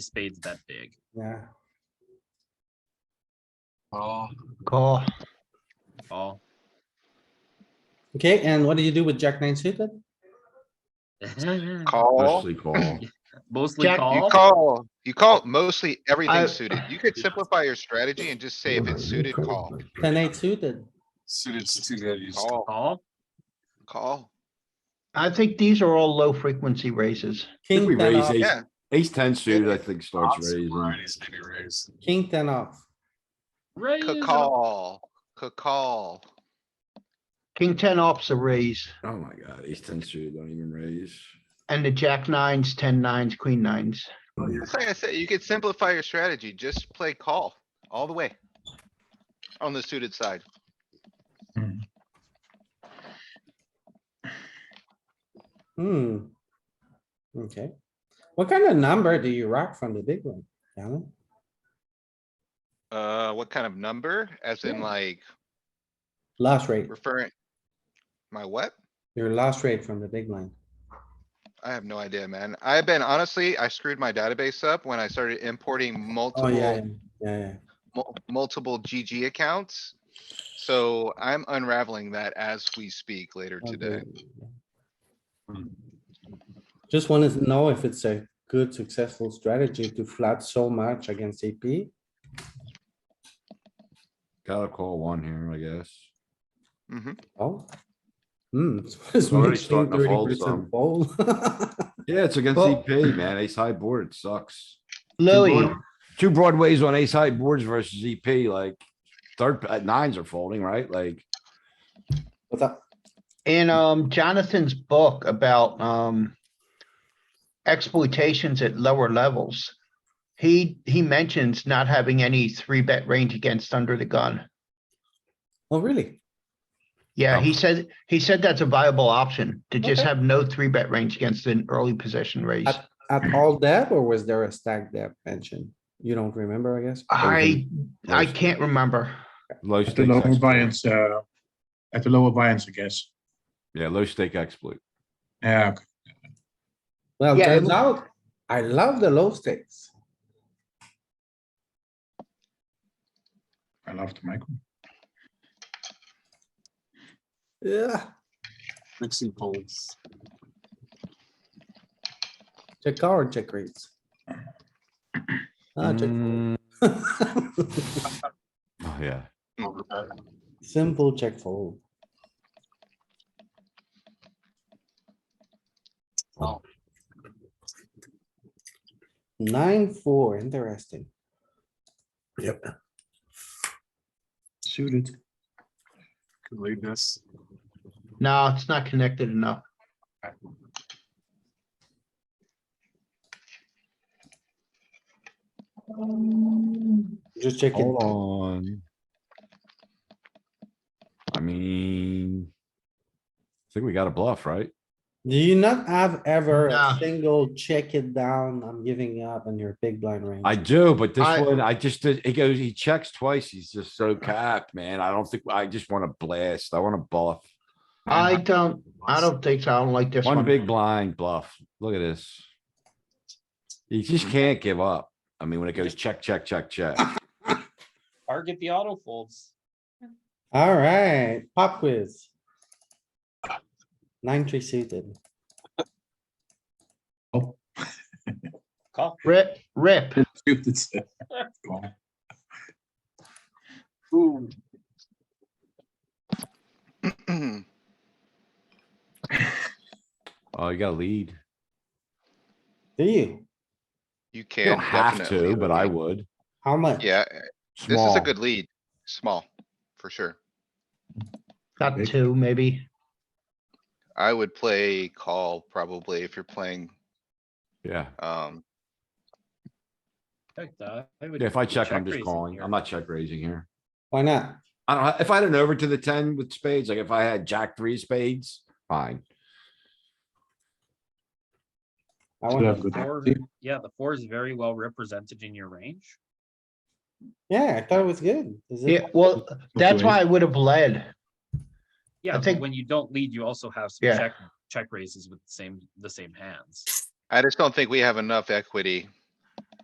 spades that big. Yeah, Oh, Call. Call. okay, and what do you do with jack nine suited? call. Mostly call. Mostly Jack, you You call. call, you Oh. call mostly I- everything suited. You could simplify your strategy and just say if it's suited, call, Ten eight suited, suited to two values. call, Call. call. I think these are all low frequency raises. Think uh, we king ten raise off, ace- Yeah. Ace ten suited, I think starts Lots of raising. varieties, maybe raise. king ten off. Raise. Ca- Call, ca- call. King ten off's a raise Oh my god, ace ten suited, don't even raise. and the jack nines, ten nines, queen nines. Oh, That's Like I said, you could simplify your strategy. Just play call all the way. On the suited side. Hmm. Okay, what kind of number do you rock from the big one? Alan? Uh, what kind of number? As in Yeah. like Loss rate, referring? My what? your loss rate from the big line. I have no idea, man. I've been honestly, I screwed my database up when I started importing Oh, yeah, multiple, yeah, yeah, yeah. mul- multiple GG accounts. So I'm unraveling that as we speak later Oh, I'll do today. it. Hmm. Just wanna know if it's a good successful strategy to flat so much against AP. Gotta call one here, I guess. Mhm. Oh. Hmm. it's already mixing starting to fold 30% some. fold. Yeah, it's against Well- EP, man. Ace high board, it sucks. Two Louis, broad- Two broadways on ace high boards versus EP, like third, uh, nines are folding, right? Like, What's up? in um Jonathan's book about um. Exploitations at lower levels. He, he mentions not having any three bet range against under the gun. Oh, really? Yeah, he Um, said, he said that's a viable option to just Okay. have no three bet range against an early position raise. At all depth or was there a stack depth mentioned? You don't remember, I guess? I, I Those- can't remember. low At the stakes. lower exploit. buy-ins, uh, at the lower buy-ins, I guess. Yeah, low stake exploit. Yeah, okay. Well, Yeah, it turns look- out, I love the low stakes. I love the micro. Yeah. Mixing folds. Check call or check raise? Ah, check fold. Mm, Oh, yeah. Overbet. Simple check fold. Wow. Nine, four, interesting. Yep. Suited. Could lead this. No, it's not connected enough. Just check it. Hold on. I mean. I think we got a bluff, right? Do you not have ever a Nah. single check it down, I'm giving up on your big blind range? I do, but this I- one, I just did, he goes, he checks twice. He's just so capped, man. I don't think, I just wanna blast. I wanna bluff. I don't, I don't think so. I don't like this one. One big blind bluff. Look at this. You just Mm. can't give up. I mean, when it goes check, check, check, check. Target the auto folds. Alright, pop quiz. Nine, three suited. Call. Rip, rip. Suited. Call. Ooh. Mm-hmm. Oh, you got a lead. Do you? You You can. don't have definitely to, but I lead. would. How much? Yeah, this is Small. a good lead. Small, for sure. Got two, maybe. I would play call probably if you're playing, Yeah. um, Check that. uh, would Yeah, If I check, I'm just raising calling. here. I'm not check raising here. Why not? I don't, ha- if I had an over to the ten with spades, like if I had jack three of spades, fine. I Should want, have good- Four- See, Yeah, the four is very well represented in your range. yeah, I thought it was good. Is it- Yeah, well, that's why I would have led. Yeah, but think- when you don't lead, you also have some Yeah. check, check raises with the same, the same hands. I just don't think we have enough equity